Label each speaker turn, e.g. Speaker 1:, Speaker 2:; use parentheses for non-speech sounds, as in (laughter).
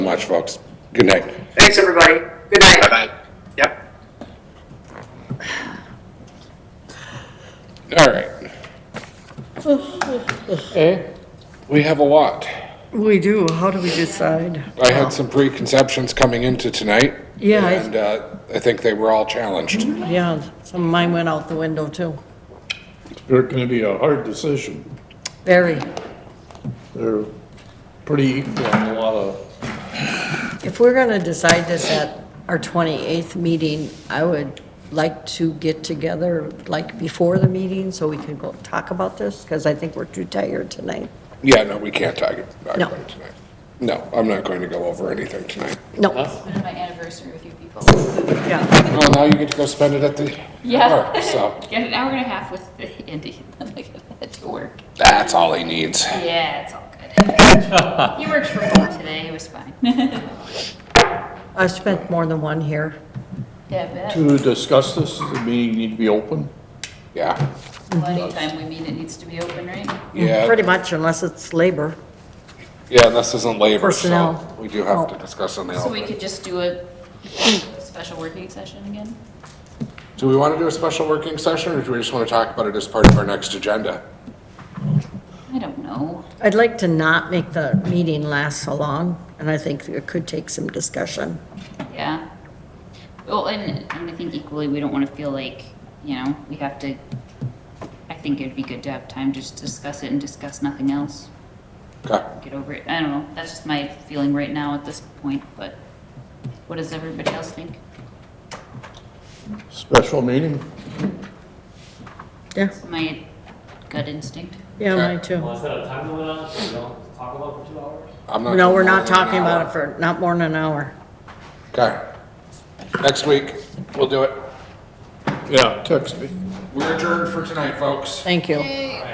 Speaker 1: much, folks. Good night.
Speaker 2: Thanks, everybody. Good night.
Speaker 3: Bye-bye. Yep.
Speaker 1: All right. Okay, we have a lot.
Speaker 4: We do, how do we decide?
Speaker 1: I had some preconceptions coming into tonight.
Speaker 4: Yeah, I-
Speaker 1: And uh, I think they were all challenged.
Speaker 4: Yeah, some of mine went out the window too.
Speaker 5: They're gonna be a hard decision.
Speaker 4: Very.
Speaker 5: They're pretty equal on a lot of,
Speaker 4: If we're gonna decide this at our 28th meeting, I would like to get together, like, before the meeting, so we can go talk about this, because I think we're too tired tonight.
Speaker 1: Yeah, no, we can't talk talk
Speaker 4: No.
Speaker 1: about it tonight. No, I'm not going to go over anything tonight.
Speaker 4: No,
Speaker 6: spend my anniversary with you people.
Speaker 4: yeah,
Speaker 1: Well, now you get to go spend it at the
Speaker 6: Yeah.
Speaker 1: bar, so
Speaker 6: (laughs) Get an hour and a half with Andy, (laughs) and then I gotta head to work.
Speaker 1: that's all he needs.
Speaker 6: Yeah, it's all good. He worked from home today, it was fine. Yeah,
Speaker 4: I spent more than one here.
Speaker 6: but
Speaker 5: to discuss this, the meeting need to be open.
Speaker 1: Yeah,
Speaker 6: well, anytime we meet, it needs to be open, right?
Speaker 4: Pretty
Speaker 1: yeah,
Speaker 4: much, unless it's labor.
Speaker 1: yeah, this isn't labor, so
Speaker 4: Personnel.
Speaker 1: we do have to discuss on the
Speaker 6: So we
Speaker 1: open.
Speaker 6: could just do a special working session again?
Speaker 1: Do we want to do a special working session, or do we just want to talk about it as part of our next agenda?
Speaker 6: I don't know.
Speaker 4: I'd like to not make the meeting last so long, and I think it could take some discussion.
Speaker 6: Yeah. Well, and, and I think equally, we don't wanna feel like, you know, we have to, I think it'd be good to have time to just discuss it and discuss nothing else.
Speaker 1: Okay,
Speaker 6: get over it. I don't know. That's just my feeling right now at this point, but what does everybody else think?
Speaker 5: Special meeting,
Speaker 4: Yeah,
Speaker 6: My gut instinct.
Speaker 4: yeah, mine too.
Speaker 7: Well, is that a time limit on it, so we don't talk about it for two hours?
Speaker 1: I'm not.
Speaker 4: No,
Speaker 1: doing more
Speaker 4: we're not
Speaker 1: than an
Speaker 4: talking about
Speaker 1: hour.
Speaker 4: it for, not more than an hour.
Speaker 1: Okay. Next week, we'll do it.
Speaker 5: yeah, text me.
Speaker 1: We're adjourned for tonight, folks.
Speaker 4: Thank you.